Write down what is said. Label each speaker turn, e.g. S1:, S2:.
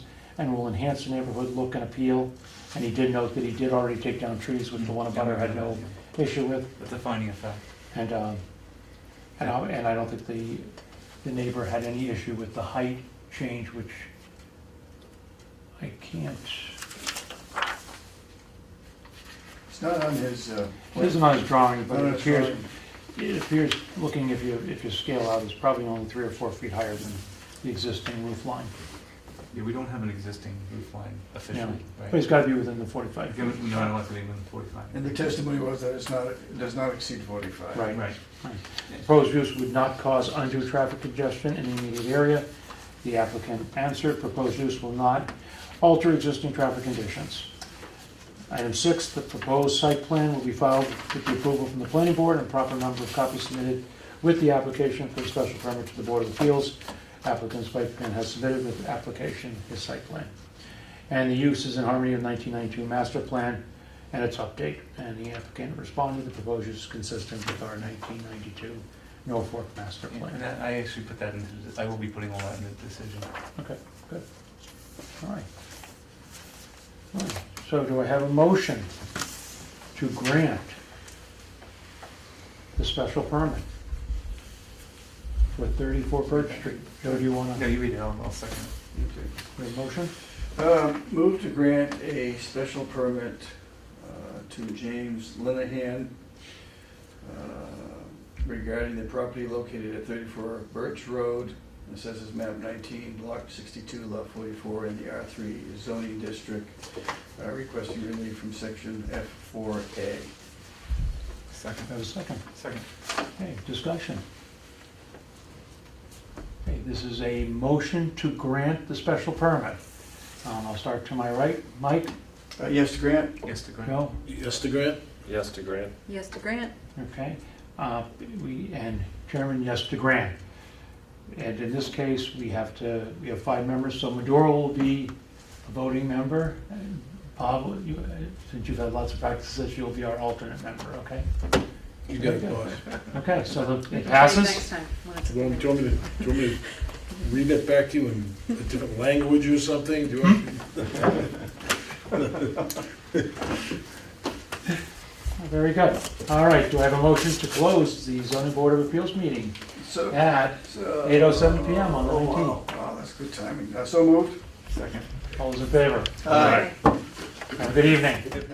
S1: and will enhance the neighborhood look and appeal. And he did note that he did already take down trees, which the one abutter had no issue with.
S2: That's a finding of fact.
S1: And, um, and I, and I don't think the, the neighbor had any issue with the height change, which I can't,
S3: It's not on his, uh.
S1: it isn't on his drawing, but
S3: No,
S1: it
S3: no, it's
S1: appears,
S3: fine.
S1: it appears, looking if you, if you scale out, it's probably only three or four feet higher than the existing roof line.
S2: Yeah, we don't have an existing roof line officially,
S1: But
S2: right?
S1: it's gotta be within the forty-five. feet.
S2: Given, no, I don't like to leave them forty-five.
S3: And the testimony was that it's not, it does not exceed forty-five.
S1: Right.
S2: Right,
S1: Proposed use would not cause undue traffic congestion in the immediate area. The applicant answered, proposed use will not alter existing traffic conditions. Item six, the proposed site plan will be filed with the approval from the planning board and proper number of copies submitted with the application for special permit to the Board of Appeals. Applicant's site plan has submitted with application his site plan. And the use is in harmony with 1992 master plan and its update. And the applicant responded, the proposed use is consistent with our 1992 Norfolk master
S2: and
S1: plan.
S2: that, I actually put that into, the- I will be putting all that in the decision.
S1: Okay, good. All right. All right. So do I have a motion to grant the special permit for 34 Birch Street? Joe, do you want
S2: No,
S1: to,
S2: you read it, I'll, I'll second.
S3: Okay.
S1: your motion?
S3: Um, Move to grant a special permit uh, to James Linehan uh, regarding the property located at 34 Birch Road, assesses map 19, block 62, lot 44, in the R3 zoning district, uh, requesting relief from section F4A.
S2: Second,
S1: I have a second.
S2: second.
S1: Okay, discussion. Okay, this is a motion to grant the special permit. Um, I'll start to my right. Mike?
S3: Uh, Yes, to grant?
S2: Yes, to grant.
S1: Joe?
S4: Yes to grant?
S5: Yes to grant.
S6: Yes to grant.
S1: Okay, uh, we, and Chairman, yes to grant. And in this case, we have to, we have five members, so Maduro will be a voting member. And Bob, you- since you've had lots of practices, you'll be our alternate member, okay?
S4: You got it, boss.
S1: Okay, so the- it
S6: Next
S1: passes?
S6: time. when it's a
S4: Well, do
S6: committee.
S4: you want me to, do you want me to read that back to you in a different language or something? Do you want?
S1: Very good. All right, do I have a motion to close the zoning board of appeals meeting
S3: So-
S1: at,
S3: so-
S1: 8:07 PM on the
S3: Oh, wow.
S1: 19th.
S3: Wow, that's good timing. Uh, So moved?
S2: Second.
S1: all those in favor?
S3: Aye.
S6: Okay.
S1: Have a good evening.